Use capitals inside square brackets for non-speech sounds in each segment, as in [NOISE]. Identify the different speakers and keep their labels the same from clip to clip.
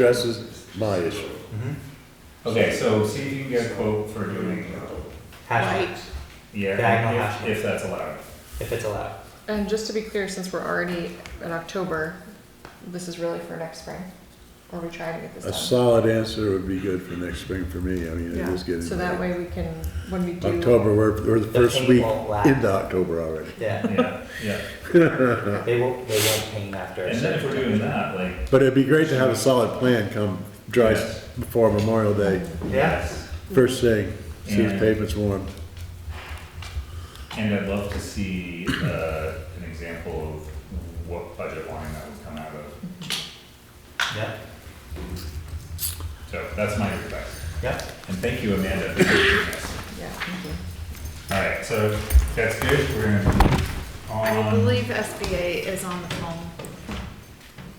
Speaker 1: addresses my issue.
Speaker 2: Mm-hmm.
Speaker 3: Okay, so see if you can get a quote for doing,
Speaker 2: Right.
Speaker 4: Hashtag,
Speaker 2: Diagonal
Speaker 3: yeah,
Speaker 2: hash
Speaker 3: if, if that's
Speaker 2: [LAUGHS]
Speaker 3: allowed.
Speaker 2: if it's allowed.
Speaker 4: And just to be clear, since we're already in October, this is really for next spring, or we try to get
Speaker 1: A
Speaker 4: this done.
Speaker 1: solid answer would be good for next spring for me, I mean, it
Speaker 4: Yeah,
Speaker 1: is getting.
Speaker 4: so that way we can, when we do.
Speaker 1: October, we're, we're the
Speaker 2: The
Speaker 1: first
Speaker 2: paint
Speaker 1: week
Speaker 2: won't last.
Speaker 1: into October already.
Speaker 2: Yeah,
Speaker 3: Yeah, yeah.
Speaker 2: they won't, they won't paint after. a
Speaker 3: And then if we're
Speaker 2: certain
Speaker 3: doing that, like,
Speaker 1: But it'd be great to have a solid plan come dry, s-
Speaker 3: Yes.
Speaker 1: before Memorial Day,
Speaker 2: time. Yeah,
Speaker 3: yes,
Speaker 1: first thing, see if
Speaker 3: Yeah.
Speaker 1: pavement's warm.
Speaker 3: and I'd love to see, uh, an example of what budget line that would come out of.
Speaker 2: yeah,
Speaker 3: So that's my request.
Speaker 2: yeah.
Speaker 3: And thank you, Amanda, for doing this.
Speaker 4: Yeah, thank you.
Speaker 3: All right, so that's good, we're gonna
Speaker 5: I
Speaker 3: on,
Speaker 5: believe SBA is on the phone.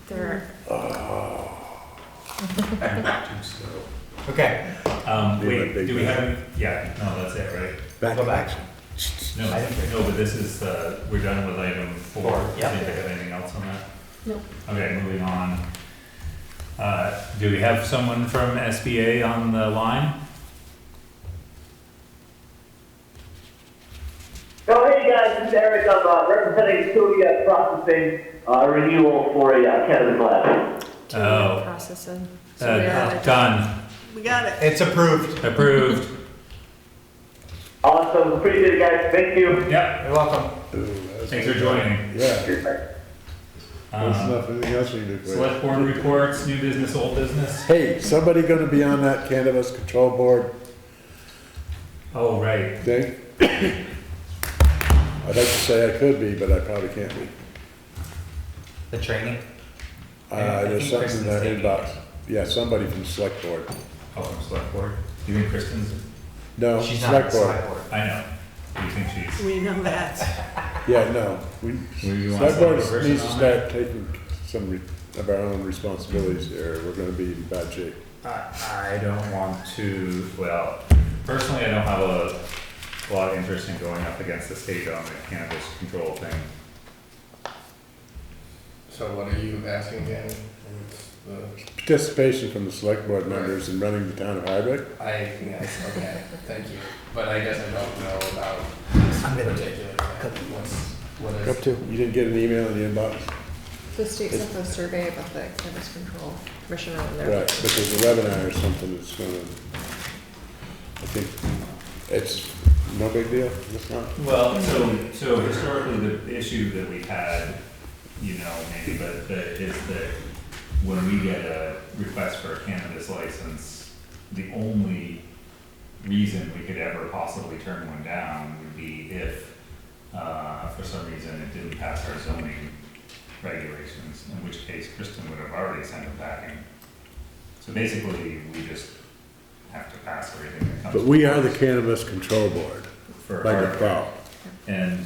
Speaker 5: They're,
Speaker 2: Okay,
Speaker 3: um,
Speaker 1: Be my
Speaker 3: wait,
Speaker 1: big
Speaker 3: do we
Speaker 1: man.
Speaker 3: have, yeah, no, that's it, right?
Speaker 1: Back
Speaker 2: Go
Speaker 1: to
Speaker 2: back.
Speaker 1: action.
Speaker 3: No,
Speaker 2: I think
Speaker 3: no, but this is, uh, we're done with item four.
Speaker 2: Four, yeah.
Speaker 3: Did you have anything else on that?
Speaker 4: Nope.
Speaker 3: Okay, moving on. Uh, do we have someone from SBA on the line?
Speaker 6: Oh, hey guys, this is Eric. I'm uh, representing Tuya Processing uh, Renewal for a uh, Kevin Glass.
Speaker 3: Oh.
Speaker 4: Processing. So we are-
Speaker 3: Uh, done,
Speaker 5: we got it.
Speaker 2: it's approved.
Speaker 3: approved,
Speaker 6: Awesome. Appreciate it, guys. Thank you.
Speaker 3: yep,
Speaker 2: You're welcome.
Speaker 1: Ooh, that's-
Speaker 3: thanks for joining.
Speaker 1: Yeah, there's
Speaker 3: Um,
Speaker 1: nothing else we can do for you.
Speaker 3: select board reports, new business, old business.
Speaker 1: Hey, somebody gonna be on that cannabis control board
Speaker 3: Oh, right,
Speaker 1: thing? I'd like to say I could be, but I probably can't be.
Speaker 2: The training.
Speaker 1: Uh, there's
Speaker 2: I think
Speaker 1: something in that
Speaker 2: Kristen's taking
Speaker 1: inbox, yeah, somebody from select board.
Speaker 3: oh, from select board, you think Kristen's,
Speaker 1: No,
Speaker 2: She's not on the
Speaker 1: Oh, select board,
Speaker 2: select board.
Speaker 3: I know, you think she's,
Speaker 5: We know that.
Speaker 1: yeah, no, we,
Speaker 3: Maybe you want
Speaker 1: select board
Speaker 3: some other
Speaker 1: needs
Speaker 3: person
Speaker 1: to
Speaker 3: on
Speaker 1: start taking some re- of our own responsibilities here, we're gonna be in bad shape.
Speaker 3: I, I don't want to, well, personally, I don't have a lot of interest in going up against the state on the cannabis control thing.
Speaker 7: So what are you asking again? What's the,
Speaker 1: Participation from the select board members in running the town of Hardwick,
Speaker 7: I, yes, okay, thank you. But I guess I don't know about this
Speaker 2: I'm gonna do
Speaker 7: particular thing. What's, what is?
Speaker 1: up to, you didn't get an email in the inbox?
Speaker 4: The state sent a survey about the cannabis control commission on
Speaker 1: Right,
Speaker 4: there.
Speaker 1: but there's a webinar or something that's gonna, I think, it's no big deal, it's not.
Speaker 3: Well, so, so historically, the issue that we had, you know, maybe, but, but is that when we get a request for a cannabis license, the only reason we could ever possibly turn one down would be if, uh, for some reason, it didn't pass our zoning regulations, in which case Kristen would have already sent it packing. So basically, we just have to pass everything that comes.
Speaker 1: But we are the cannabis control board
Speaker 3: for
Speaker 1: by
Speaker 3: our-
Speaker 1: default.
Speaker 3: and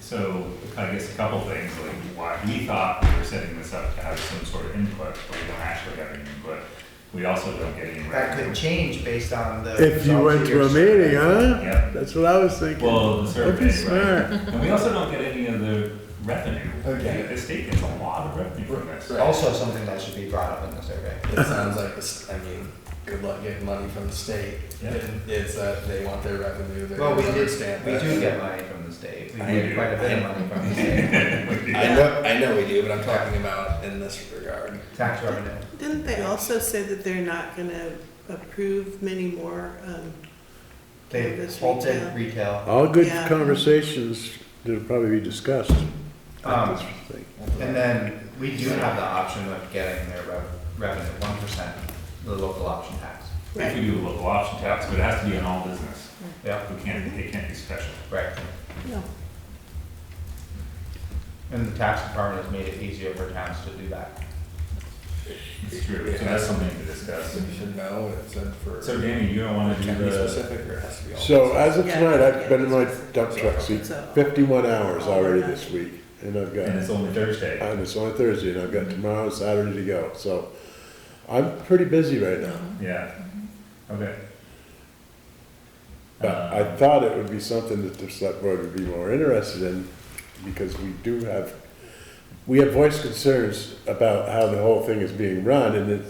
Speaker 3: so, I guess a couple things, like why we thought we were setting this up to have some sort of input, but we don't actually have any input. We also don't get any.
Speaker 2: That could change based on the.
Speaker 1: If you went to a meeting, huh?
Speaker 3: Yeah.
Speaker 1: That's what I was thinking.
Speaker 3: Well, the
Speaker 1: That'd be
Speaker 3: survey, right?
Speaker 1: smart.
Speaker 3: And we also don't get any of the revenue.
Speaker 7: Okay.
Speaker 3: The- The state gets a lot of revenue from this.
Speaker 7: Right.
Speaker 2: Also something that should be brought up in the survey.
Speaker 7: It sounds like this, I mean, good luck getting money from the state.
Speaker 3: Yeah.
Speaker 7: And It's that they want their revenue, they
Speaker 2: Well, we did,
Speaker 7: understand
Speaker 2: we
Speaker 7: that.
Speaker 2: do get money from the state. We
Speaker 3: I
Speaker 2: get
Speaker 3: do.
Speaker 2: quite a bit of money from
Speaker 1: [LAUGHS]
Speaker 2: the state.
Speaker 7: I know, I know we do, but I'm talking about in this regard.
Speaker 2: Tax revenue.
Speaker 8: Didn't they also say that they're not gonna approve many more, um,
Speaker 2: They
Speaker 8: Cannabis
Speaker 2: halted
Speaker 8: retail.
Speaker 2: retail.
Speaker 1: All good
Speaker 8: Yeah.
Speaker 1: conversations that'll probably be discussed.
Speaker 2: Um,
Speaker 1: That's the thing.
Speaker 2: And then we do have the option of getting their rev- revenue, one percent, the local option tax.
Speaker 3: If we do a local option tax, but it has to be on all business.
Speaker 2: Yeah,
Speaker 3: We can't, it can't be special.
Speaker 2: right.
Speaker 8: no,
Speaker 2: And the tax department has made it easier for towns to do that.
Speaker 3: It's true, so that's something to discuss.
Speaker 7: So you should know, what it's in for.
Speaker 3: So Danny, you don't wanna do
Speaker 7: Can be
Speaker 3: the,
Speaker 7: specific or it has to be all?
Speaker 1: So as of
Speaker 8: Yeah.
Speaker 1: tonight, I've been in my dump truck seat
Speaker 8: So-
Speaker 1: fifty-one hours already this week, and I've got
Speaker 3: and it's only Thursday.
Speaker 1: And it's only Thursday, and I've got tomorrow, and Saturday to go, so I'm pretty busy right now.
Speaker 3: Yeah, okay.
Speaker 1: But I thought it would be something that the select board would be more interested in, because we do have we have voiced concerns about how the whole thing is being run, and it's